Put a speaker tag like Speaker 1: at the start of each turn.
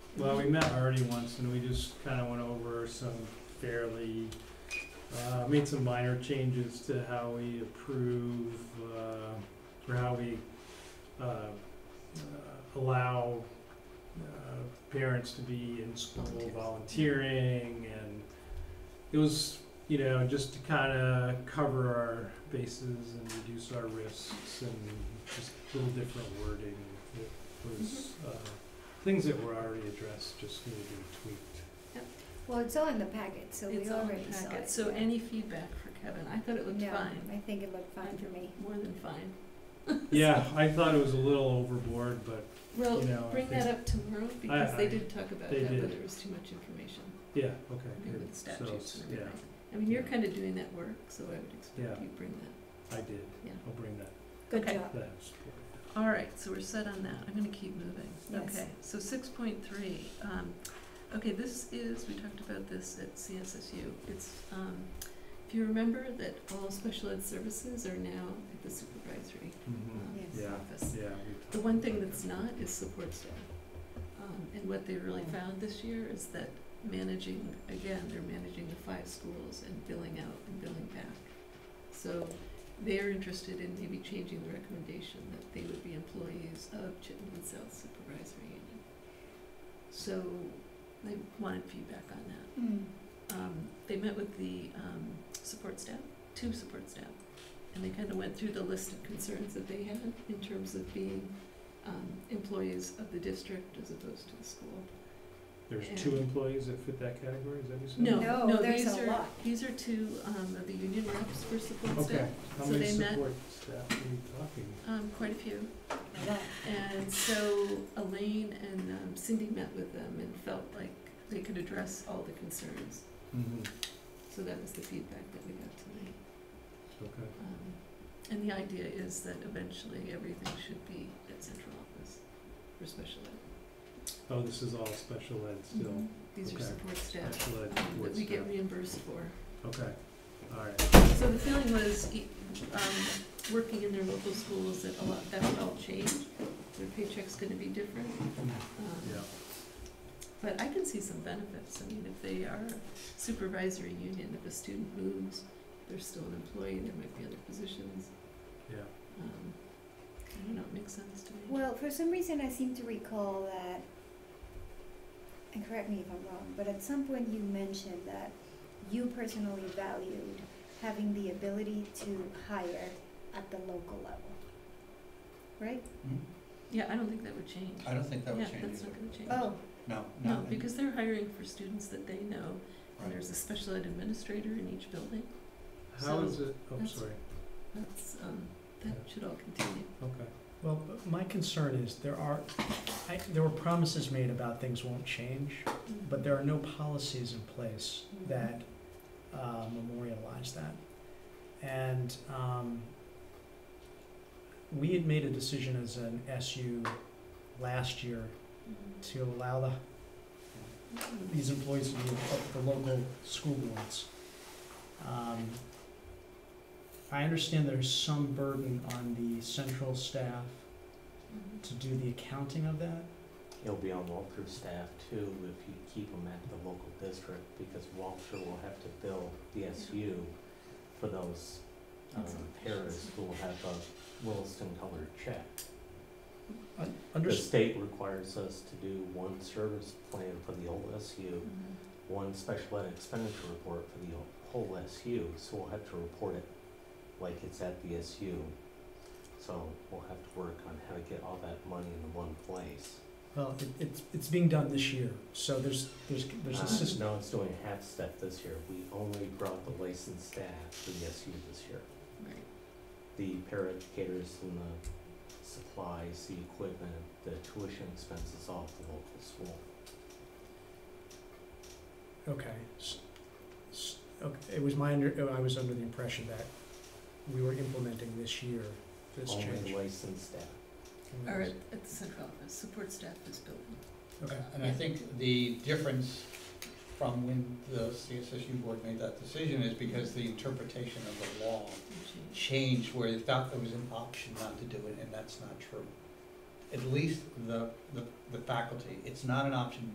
Speaker 1: Well, we met already once and we just kind of went over some fairly, uh, made some minor changes to how we approve, uh, or how we, uh, uh, allow, uh, parents to be in school
Speaker 2: Volunteers.
Speaker 1: volunteering and it was, you know, just to kind of cover our bases and reduce our risks and just a little different wording that was, uh, things that were already addressed just need to be tweaked.
Speaker 3: Well, it's all in the packet, so we
Speaker 2: It's all in
Speaker 3: already
Speaker 2: the
Speaker 3: saw
Speaker 2: packet,
Speaker 3: it.
Speaker 2: so
Speaker 3: yeah.
Speaker 2: any feedback for Kevin, I thought it looked
Speaker 3: Yeah,
Speaker 2: fine,
Speaker 3: I think it looked fine for me.
Speaker 2: more than fine.
Speaker 1: Yeah, I thought it was a little overboard, but
Speaker 2: Well,
Speaker 1: You know, I
Speaker 2: Oh, bring
Speaker 1: think-
Speaker 2: that up tomorrow, because they
Speaker 1: I-
Speaker 2: did talk about
Speaker 1: they
Speaker 2: that, but
Speaker 1: did.
Speaker 2: there was too much information,
Speaker 1: yeah, okay,
Speaker 2: you know,
Speaker 1: good.
Speaker 2: with
Speaker 1: So,
Speaker 2: statutes and
Speaker 1: yeah,
Speaker 2: everything. I mean, you're
Speaker 1: Yeah.
Speaker 2: kinda doing that work, so I would expect
Speaker 1: Yeah.
Speaker 2: you bring that.
Speaker 1: I did.
Speaker 2: Yeah.
Speaker 1: I'll bring that,
Speaker 3: Good
Speaker 2: Okay.
Speaker 3: job.
Speaker 1: that support.
Speaker 2: All right, so we're set on that, I'm gonna keep moving.
Speaker 3: Yes.
Speaker 2: Okay, so six point three, um, okay, this is, we talked about this at CSSU, it's, um, if you remember that all special ed services are now at the supervisory um,
Speaker 1: Mhm.
Speaker 3: Yes.
Speaker 1: Yeah,
Speaker 2: office.
Speaker 1: yeah. we
Speaker 2: The
Speaker 1: talked
Speaker 2: one thing
Speaker 1: about
Speaker 2: that's
Speaker 1: that.
Speaker 2: not is support staff. Um, and what they really found this year is that managing, again, they're managing the five schools and billing out and billing back. So they're interested in maybe changing the recommendation that they would be employees of Chittenden South Supervisory Union. So they wanted feedback on that
Speaker 3: Mm.
Speaker 2: um, they met with the um, support staff, two support staff, and they kind of went through the list of concerns that they had in terms of being um, employees of the district as opposed to the school.
Speaker 1: There's two employees that fit that category, is that what you said?
Speaker 2: No,
Speaker 3: No,
Speaker 2: no,
Speaker 3: there's
Speaker 2: these
Speaker 3: a
Speaker 2: are
Speaker 3: lot.
Speaker 2: these are two um, of the union reps for support
Speaker 1: Okay,
Speaker 2: staff,
Speaker 1: how
Speaker 2: So
Speaker 1: many
Speaker 2: they met-
Speaker 1: support staff are we talking?
Speaker 2: um, quite a few.
Speaker 3: Well,
Speaker 2: And so Elaine and um, Cindy met with them and felt like they could address all the concerns.
Speaker 1: Mm-hmm,
Speaker 2: So that was the feedback that we got tonight.
Speaker 1: okay.
Speaker 2: Um, And the idea is that eventually everything should be at central office for special ed.
Speaker 1: Oh, this is all special ed still,
Speaker 2: These are
Speaker 1: Okay.
Speaker 2: support staff
Speaker 1: special
Speaker 2: um,
Speaker 1: ed
Speaker 2: Mm-hmm. that
Speaker 1: support
Speaker 2: we get
Speaker 1: staff,
Speaker 2: reimbursed for.
Speaker 1: okay, all right.
Speaker 2: So the feeling was, e- um, working in their local schools, that a lot, that would all change. Their paycheck's gonna be different. Um,
Speaker 1: Yeah,
Speaker 2: But I can see some benefits. I mean, if they are a supervisory union, if a student moves, they're still an employee, there might be other positions.
Speaker 1: yeah.
Speaker 2: Um, I don't know, it makes sense to me.
Speaker 3: Well, for some reason, I seem to recall that, and correct me if I'm wrong, but at some point you mentioned that you personally valued having the ability to hire at the local level, right?
Speaker 2: Yeah, I don't think that would change.
Speaker 4: I don't think that would
Speaker 2: Yeah,
Speaker 4: change
Speaker 2: that's
Speaker 4: either.
Speaker 2: not gonna change.
Speaker 3: Oh,
Speaker 4: No, no.
Speaker 2: No,
Speaker 4: and-
Speaker 2: because they're hiring for students that they know, and
Speaker 4: right.
Speaker 2: there's a special ed administrator in each building.
Speaker 1: How
Speaker 2: So
Speaker 1: is it, oh,
Speaker 2: that's-
Speaker 1: sorry,
Speaker 2: That's, um, that should all continue.
Speaker 1: okay.
Speaker 5: Well, my concern is there are, I, there were promises made about things won't change, but there are no policies in place that uh, memorialize that. And um, we had made a decision as an SU last year to allow the,
Speaker 2: Mm.
Speaker 5: these employees to be of the local school boards. Um, I understand there's some burden on the central staff
Speaker 2: Mhm.
Speaker 5: to do the accounting of that.
Speaker 6: He'll be on Walter's staff too if you keep him at the local district, because Walter will have to bill DSU for those um, paras who will have a Williston colored check.
Speaker 5: Un-
Speaker 6: The
Speaker 5: unders-
Speaker 6: state requires us to do one service plan for the whole SU,
Speaker 2: Mhm.
Speaker 6: one special ed expenditure report for the whole SU, so we'll have to report it like it's at the SU. So we'll have to work on how to get all that money in one place.
Speaker 5: well, it, it's, it's being done this year, so there's, there's, there's
Speaker 6: Uh,
Speaker 5: a system.
Speaker 6: No, it's doing a half step this year. We only brought the licensed staff to the SU this year.
Speaker 2: Right.
Speaker 6: The paraeducators and the supplies, the equipment, the tuition expenses all at the local school.
Speaker 5: Okay. s- s- Okay, it was my under, uh, I was under the impression that we were implementing this year, this
Speaker 6: Only
Speaker 5: change.
Speaker 6: licensed staff.
Speaker 2: Or at, at the central office, support staff is building.
Speaker 5: Okay,
Speaker 4: Uh, And I think the difference from when the CSSU board made that decision is because the interpretation of the law
Speaker 2: and change.
Speaker 4: changed where they thought there was an option not to do it, and that's not true. At least the, the, the faculty, it's not an option